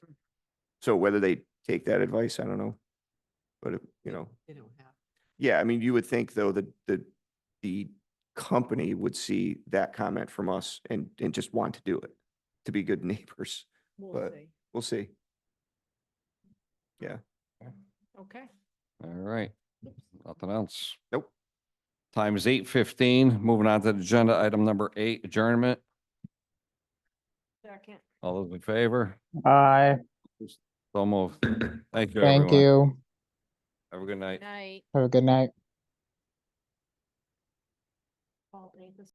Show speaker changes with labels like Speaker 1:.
Speaker 1: So whether they take that advice, I don't know. But, it- you know,
Speaker 2: They don't have.
Speaker 1: yeah, I mean, you would think though that the, the company would see that comment from us and, and just want to do it, to be good neighbors.
Speaker 2: We'll
Speaker 1: But-
Speaker 2: see.
Speaker 1: We'll see.
Speaker 2: Okay.
Speaker 3: All right, nothing else.
Speaker 1: Nope.
Speaker 3: Time is eight fifteen. Moving on to agenda item number eight, adjournment.
Speaker 2: Second.
Speaker 3: All those in favor?
Speaker 4: Aye,
Speaker 3: So moved. Thank you,
Speaker 4: thank
Speaker 3: everyone.
Speaker 4: you.
Speaker 3: Have a good night.
Speaker 2: Night.
Speaker 4: Have a good night.
Speaker 2: Paul, ain't this